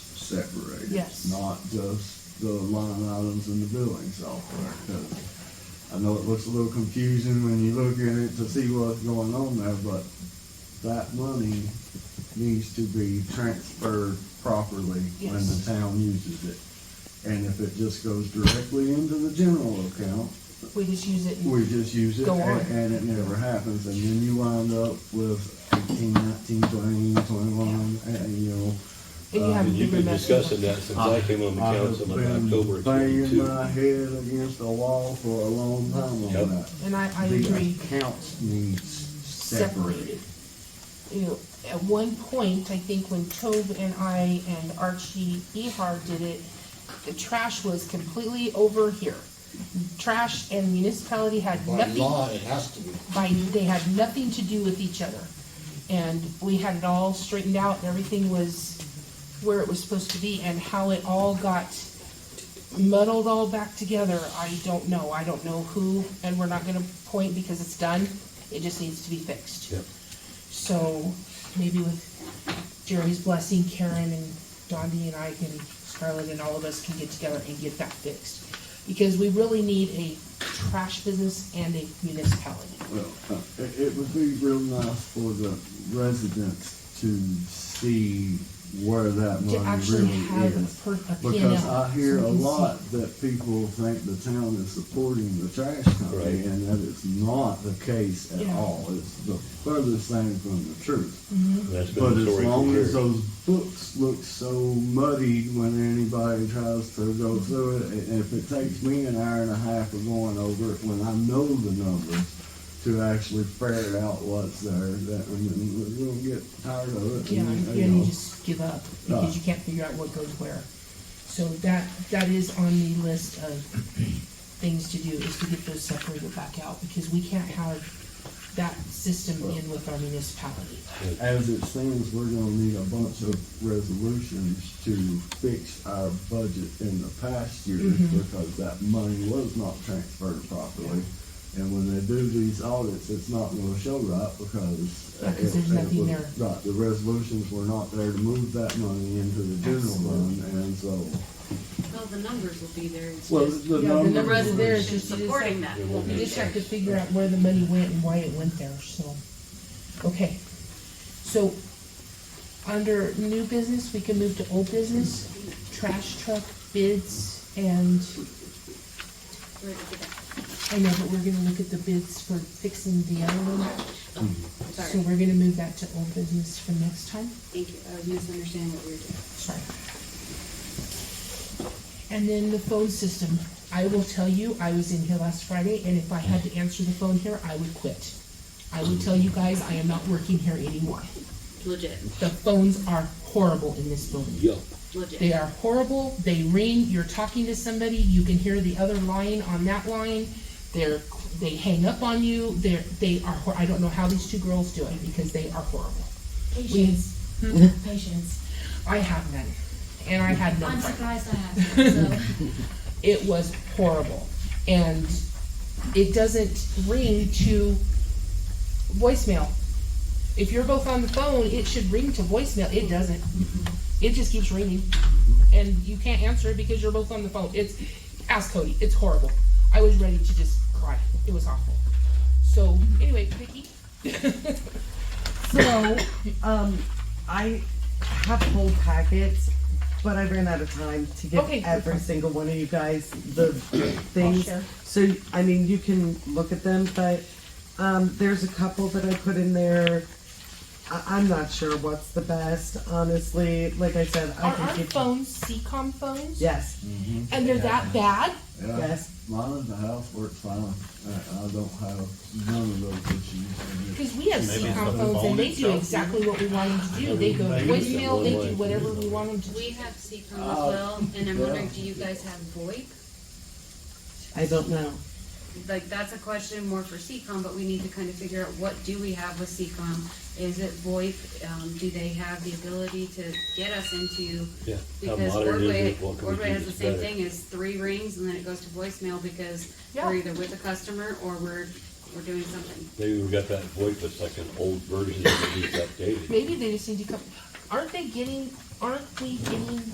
separated. Yes. Not just the line items in the billing software, 'cause I know it looks a little confusing when you look at it to see what's going on there, but that money needs to be transferred properly when the Yes. town uses it. And if it just goes directly into the general account, We just use it. we just use it Go on. and, and it never happens, and then you wind up with eighteen, nineteen, twenty, twenty-one, and you know. And uh, you haven't And you've been been messing with discussing it. that since I came on the I have council in been October of Banging twenty-two. my head against the wall for a long time on Yep. that. And I, I agree. The accounts needs separated. separated. You know, at one point, I think when Tove and I and Archie Ehar did it, the trash was completely over here. Trash and municipality had By nothing, law, it has to be. by, they had nothing to do with each other. And we had it all straightened out and everything was where it was supposed to be and how it all got muddled all back together, I don't know. I don't know who, and we're not gonna point because it's done. It just needs to be fixed. Yep. So maybe with Jerry's blessing, Karen and Dondi and I can, Scarlett and all of us can get together and get that fixed. Because we really need a trash business and a municipality. Well, uh, it, it would be real nice for the residents to see where that To money actually really have is. a per, a P and Because I L. hear a lot that people think the town is supporting the trash company, Right. and that is not the case at Yeah. Mm-hmm. all. It's the furthest thing from the truth. That's been But the as story for long as years. those books look so muddy when anybody tries to go through it, and if it takes me an hour and a half of going over it, when I know the numbers, to actually ferret out what's there, that, and then we'll get tired of it. Yeah, and, and you know. you just give up because Uh. you can't figure out what goes where. So that, that is on the list of things to do is to get those separated back out because we can't have that system in with our municipality. As it stands, we're gonna need a bunch of resolutions to fix our budget in the past years Mm-hmm. because that money was not transferred properly. And when they do these audits, it's not gonna show right because. Yeah, 'cause it- there's it nothing was- there. Right, the resolutions were not there to move that money into the general fund, and so. Well, the numbers will be there. It's Well, just the Yeah, the numbers. numbers were- there. it's just supporting that. will You be just have there. to figure out where the money went and why it went there, so, okay. So, under new business, we can move to old business, trash truck bids, and Where did we get that? I know, but we're gonna look at the bids for fixing the other one. Oh, So Sorry, we're gonna move that to old business for next time, thank you. I was misunderstanding what we were doing. sorry. And then the phone system, I will tell you, I was in here last Friday, and if I had to answer the phone here, I would quit. I would tell you guys, I am not working here anymore. Legit, The phones are horrible in this building. Yup. They legit. are horrible, they ring, you're talking to somebody, you can hear the other line on that line. They're, they hang up on you, they're, they are, hor- I don't know how these two girls do it, because they are horrible. Patience. Patience. I have none, and I had none. I'm surprised I have. So It was horrible, and it doesn't ring to voicemail. If you're both on the phone, it should ring to voicemail. It doesn't. It just keeps ringing, and you can't answer it because you're both on the phone. It's ask Cody. It's horrible. I was ready to just cry. It was awful. So anyway, Vicky. So, um, I have whole packets, but I ran out of time to give Okay, that's every fine. single one of you guys the things. share. So, I mean, you can look at them, but um, there's a couple that I put in there. I- I'm not sure what's the best, honestly. Like I said, I Are can our give phones CCOM phones? Yes, And they're that bad? Yeah. yes. Mine in the house works fine. I, I don't have none of those issues. and it's- Because we have Maybe CCOM it's the phones and phone they do itself. exactly what we want them to do. They go to Maybe it's the voicemail, they do one-way. whatever we want them to do. We have CCOM as well, and I'm wondering, do you guys have VoIP? I don't know. Like, that's a question more for CCOM, but we need to kind of figure out what do we have with CCOM? Is it VoIP? Um, do they have the ability to get us into? Yeah. How Because modern is Ordway, it? What can we do Ordway has the that's same better? thing, is three rings and then it goes to voicemail because Yeah. we're either with a customer or we're, we're doing something. Maybe we got that VoIP that's like an old version that needs updated. Maybe they just need to come, aren't they getting, aren't we getting